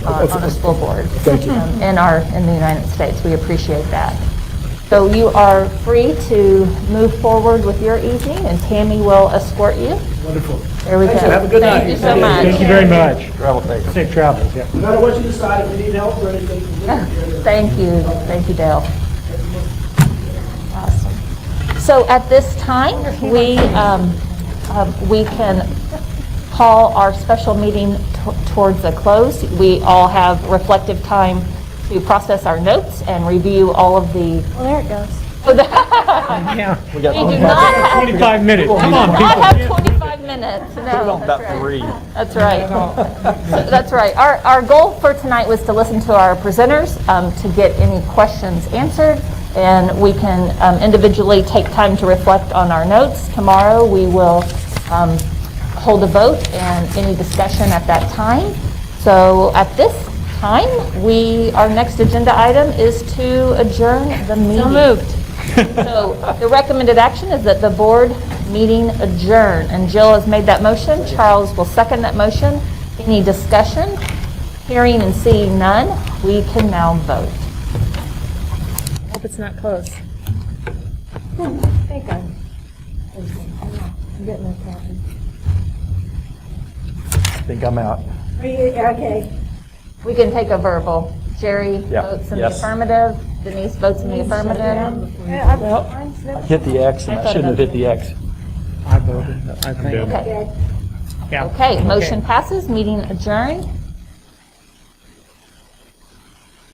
uh, on a school board. Thank you. um, In our, in the United States. We appreciate that. So you are free to move forward with your evening, and Tammy will escort you. Wonderful. There we go. Have a good night. Thank you so much. Thank you very much. Travel safe. Safe travels, yeah. No matter what you decide, if you need help or anything, you can do it. Thank you, thank you, Dale. Awesome. So at this time, we, um, um, we can call our special meeting to- towards a close. We all have reflective time to process our notes and review all of the. Well, there it goes. We do not have, 25 minutes, come on, people. not have 25 minutes, no. that's right. That's right. So That's right. Our, our goal for tonight was to listen to our presenters, um, to get any questions answered, and we can um, individually take time to reflect on our notes. Tomorrow, we will um, hold a vote and any discussion at that time. So at this time, we, our next agenda item is to adjourn the meeting. So moved. So the recommended action is that the board meeting adjourn. And Jill has made that motion. Charles will second that motion. Any discussion? Hearing and seeing none, we can now vote. Hope it's not close. Thank God. I'm getting that coffee. I think I'm out. Are you, okay? We can take a verbal. Jerry Yeah, votes in the yes. affirmative. Denise votes in the affirmative. Yeah, I'm- mine's never- Hit the X, and I shouldn't have hit the X. I voted, I think. Okay. Okay, motion passes, meeting adjourned.